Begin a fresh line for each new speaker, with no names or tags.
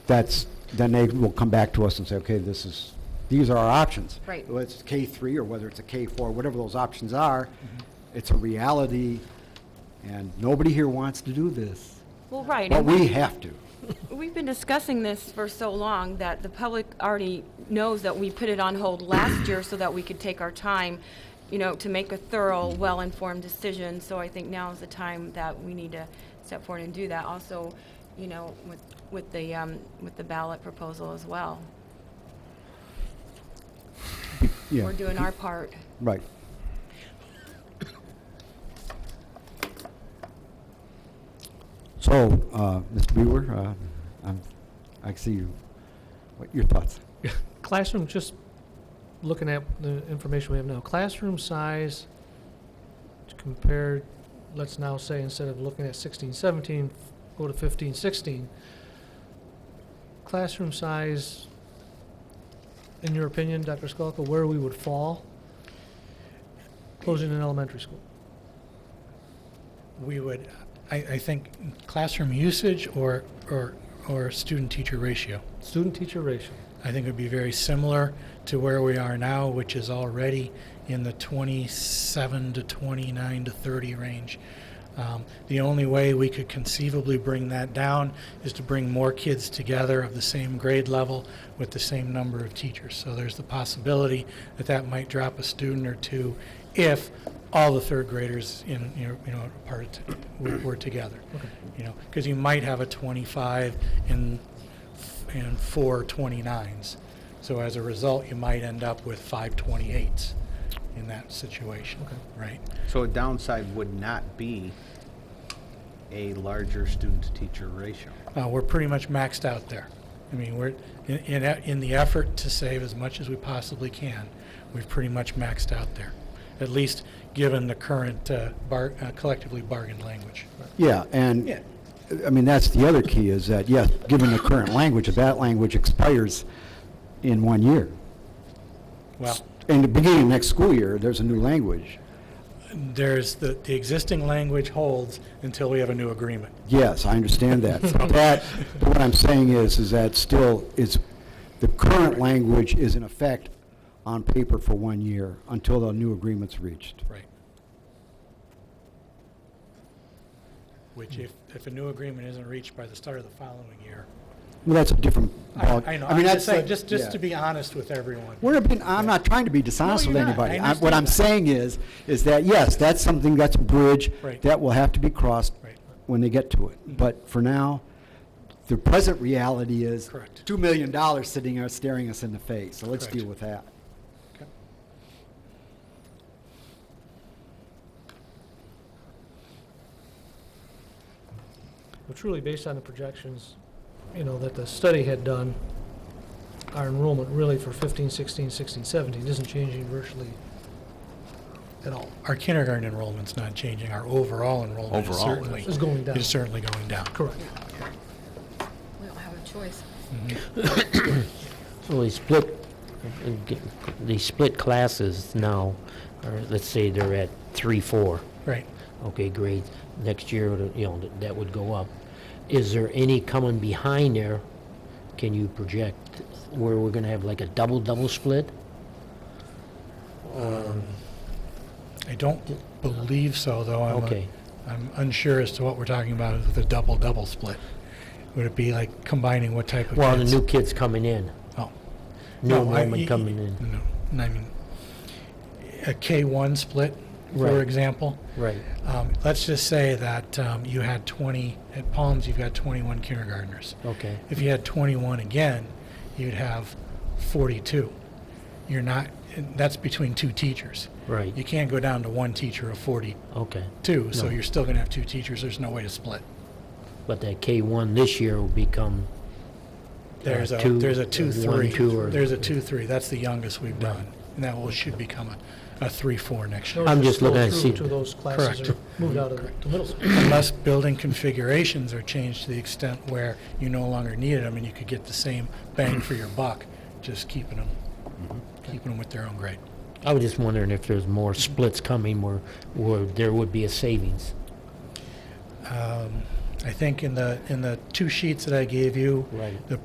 that's, then they will come back to us and say, okay, this is, these are our options.
Right.
Whether it's K three or whether it's a K four, whatever those options are, it's a reality, and nobody here wants to do this,
Well, right,
but
and
we have to.
we've been discussing this for so long that the public already knows that we put it on hold last year so that we could take our time, you know, to make a thorough, well-informed decision. So I think now is the time that we need to step forward and do that. Also, you know, with, with the, um, with the ballot proposal as well.
Yeah,
We're doing our part.
Right. So, uh, Mr. Brewer, uh, I'm, I see you, what, your thoughts?
Classroom, just looking at the information we have now, classroom size compared, let's now say, instead of looking at 16, 17, go to 15, 16. Classroom size, in your opinion, Dr. Skolka, where we would fall closing an elementary school?
we would, I, I think, classroom usage or, or, or student-teacher ratio.
Student-teacher ratio.
I think it would be very similar to where we are now, which is already in the 27 to 29 to 30 range. Um, the only way we could conceivably bring that down is to bring more kids together of the same grade level with the same number of teachers. So there's the possibility that that might drop a student or two if all the third graders in you know, you know part were, were together.
Okay.
You know, because you might have a 25 in and four 29s. So as a result, you might end up with five 28s in that situation,
Okay.
right?
So a downside would not be a larger student-to-teacher ratio.
Uh, we're pretty much maxed out there. I mean, we're, in, in, e- in the effort to save as much as we possibly can, we've pretty much maxed out there, at least given the current uh, bar, uh, collectively bargained language.
Yeah, and,
Yeah.
I mean, that's the other key, is that, yes, given the current language, if that language expires in one year,
Well,
in the beginning of next school year, there's a new language.
there's the, the existing language holds until we have a new agreement.
Yes, I understand that. That, but what I'm saying is, is that still, it's, the current language is in effect on paper for one year until the new agreement's reached.
Right. Which if, if a new agreement isn't reached by the start of the following year.
Well, that's a different. ball-
I, I know, I'm
mean,
just
that's
saying,
a-
just, just to
yeah.
be honest with everyone.
We're being, I'm not trying to be dishonest
No,
with
you're not.
anybody.
I
I'm- What
understand
I'm
that.
saying is, is that, yes, that's something, that's a bridge
Right.
that will have to be crossed
Right. Mm-hmm.
when they get to it. But for now, the present reality is
Correct.
$2 million sitting there staring us in the face, so let's
Correct.
deal with that.
Okay.
But truly, based on the projections, you know, that the study had done, our enrollment really for 15, 16, 16, 17 isn't changing virtually at all.
Our kindergarten enrollment's not changing, our overall enrollment is
Overall,
certainly.
It's going down.
Is certainly going down.
Correct.
We don't have a choice.
Well, they split, they split classes now, or let's say they're at three, four,
Right.
okay, grades. Next year, you know, that would go up. Is there any coming behind there? Can you project where we're gonna have like a double, double split?
I don't believe so, though. I'm, uh,
Okay.
I'm unsure as to what we're talking about with the double-double split. Would it be like combining what type of kids?
Well, the new kids coming in,
Oh.
new
No, I-
enrollment
y-
coming in.
No, and I mean, a K-1 split, for
Right.
example.
Right,
Um, Let's just say that um, you had 20, at Palms, you've got 21 kindergartners.
okay,
If you had 21 again, you'd have 42. You're not, and that's between two teachers.
Right.
You can't go down to one teacher of 42,
okay.
so
No.
you're still going to have two teachers. There's no way to split.
But that K-1 this year will become,
There's a,
two-
there's a two,
one,
three.
two, or-
There's a two, three. That's the youngest we've done. And that will, should become a, a three, four next year.
I'm just looking at
Those
seat-
two those classes are
Correct.
moved out of the to middle school.
Unless building configurations are changed to the extent where you no longer need them and you could get the same bang for your buck, just keeping them,
Mm-hmm.
keeping them with their own grade.
I was just wondering if there's more splits coming where, where there would be a savings.
Um, I think in the, in the two sheets that I gave you,
Right.
the